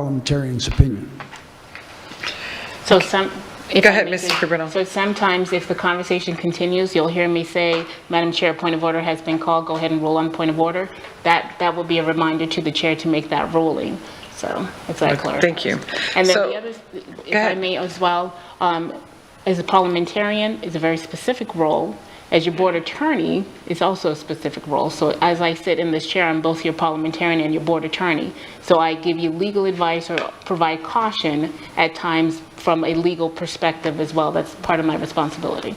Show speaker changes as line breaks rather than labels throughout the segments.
parliamentarian's opinion.
So some. if
Go
I
ahead,
may
Mrs.
just-
Cabrera.
So sometimes if the conversation continues, you'll hear me say, Madam Chair, point of order has been called, go ahead and rule on point of order. That, that will be a reminder to the chair to make that ruling. So if that clarifies.
Thank you.
And then
So-
the other, if I
ahead.
may as well, um, as a parliamentarian, is a very specific role. As your board attorney, is also a specific role. So as I sit in this chair, I'm both your parliamentarian and your board attorney. So I give you legal advice or provide caution at times from a legal perspective as well. That's part of my responsibility.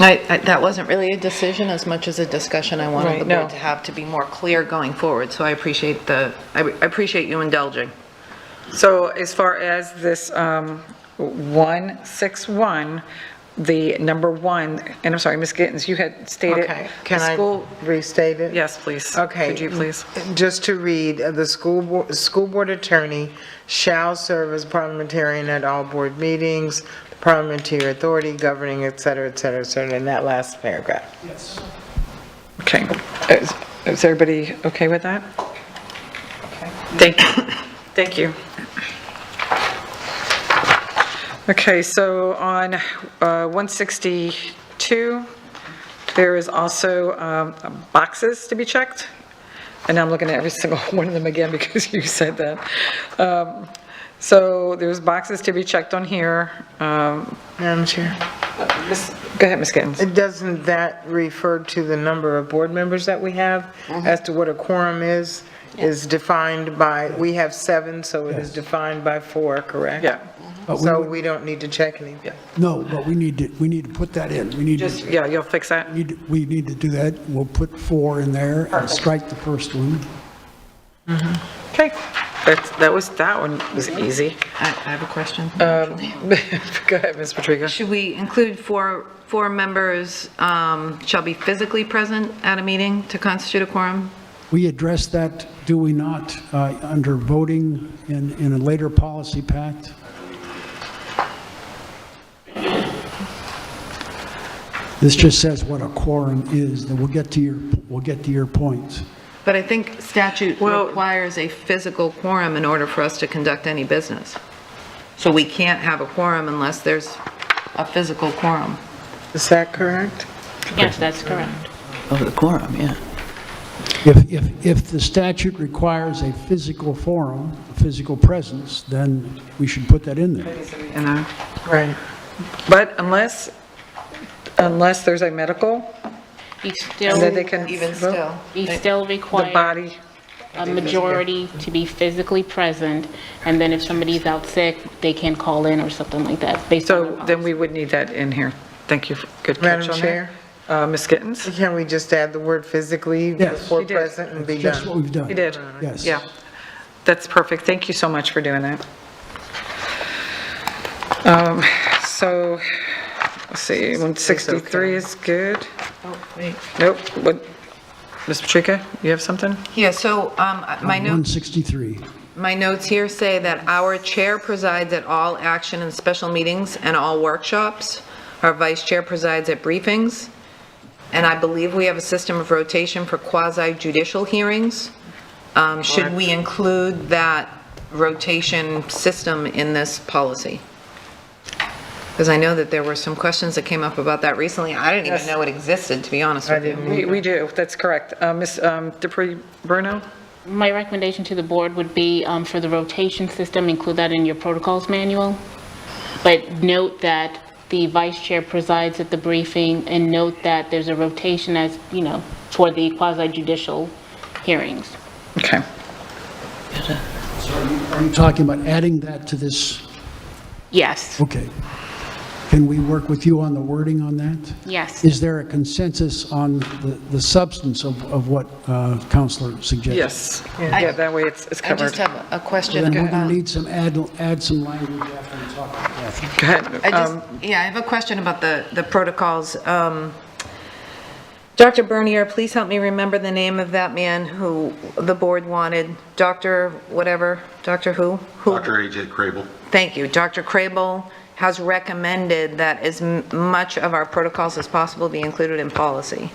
I, I- that wasn't really a decision as much as a discussion I wanted
Right,
the
no.
board to have to be more clear going forward, so I appreciate the, I I appreciate you indulging.
So as far as this um, 161, the number one, and I'm sorry, Ms. Gittens, you had stated.
Okay,
the
can
school-
I restate it?
Yes, please.
Okay.
Could you please?
Just to read, uh, the school, bo- school board attorney shall serve as parliamentarian at all board meetings, parliamentary authority governing, et cetera, et cetera, et cetera, in that last paragraph.
Okay. Is is everybody okay with that? Thank you. Thank you. Okay, so on uh, 162, there is also um, boxes to be checked. And I'm looking at every single one of them again because you said that. Um, So there's boxes to be checked on here. Um,
Madam Chair,
Ms- Go ahead, Ms. Gittens.
it doesn't that refer to the number of board members that we have as to what a quorum is? Is defined by, we have seven, so it is defined by four, correct?
Yeah.
But we
So
would-
we don't need to check anything.
No, but we need to, we need to put that in. We need
Just,
to,
yeah, you'll fix that?
we need- we need to do that. We'll put four in there and strike the first one.
Okay, that's, that was, that one was easy.
I I have a question.
Um, Go ahead, Ms. Patrica.
Should we include four, four members um, shall be physically present at a meeting to constitute a quorum?
We address that, do we not, uh, under voting in, in a later policy pact? This just says what a quorum is, then we'll get to your, we'll get to your points.
But I think statute
Well-
requires a physical quorum in order for us to conduct any business. So we can't have a quorum unless there's a physical quorum.
Is that correct?
Yes, that's correct.
Of the quorum, yeah.
If, if, if the statute requires a physical forum, a physical presence, then we should put that in there.
You know,
Right.
But unless, unless there's a medical,
You
and then they
still,
can.
Even
vote.
still.
you still
The
require
body,
a majority to be physically present. And then if somebody's out sick, they can call in or something like that based on.
so then we would need that in here. Thank you, good
Madam
catch on that.
Chair.
Uh, Ms. Gittens?
Can we just add the word physically
Yes.
before
She did.
present and be
That's what
done?
we've done.
You did?
Yes.
Yeah, that's perfect, thank you so much for doing that. Um, So, let's see, 163 is good.
Oh, wait.
Nope, what, Ms. Patrica, you have something?
Yeah, so um, my note
163.
My notes here say that our chair presides at all action and special meetings and all workshops. Our vice chair presides at briefings. And I believe we have a system of rotation for quasi judicial hearings. Um, Should we include that rotation system in this policy? Because I know that there were some questions that came up about that recently. I didn't even know it existed, to be honest with you.
We we do, that's correct. Uh, Ms. um, Dupree Bruno?
My recommendation to the board would be um, for the rotation system, include that in your protocols manual. But note that the vice chair presides at the briefing, and note that there's a rotation as, you know, toward the quasi judicial hearings.
Okay.
So are you- Are you talking about adding that to this?
Yes,
Mm.
Okay. Can we work with you on the wording on that?
yes.
Is there a consensus on the, the substance of, of what uh, Counselor suggested?
Yes. Yeah, that way it's it's
I just
covered. Go
have a question.
Then we're going
about-
to need some, add, add some language after we talk about that.
I
ahead. Um,
just, yeah, I have a question about the, the protocols. Um, Dr. Bernier, please help me remember the name of that man who the board wanted, Dr. whatever, Dr. who? Who?
Dr. AJ Crable.
Thank you. Dr. Crable has recommended that as m- much of our protocols as possible be included in policy.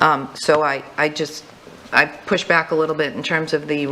Um, So I, I just, I push back a little bit in terms of the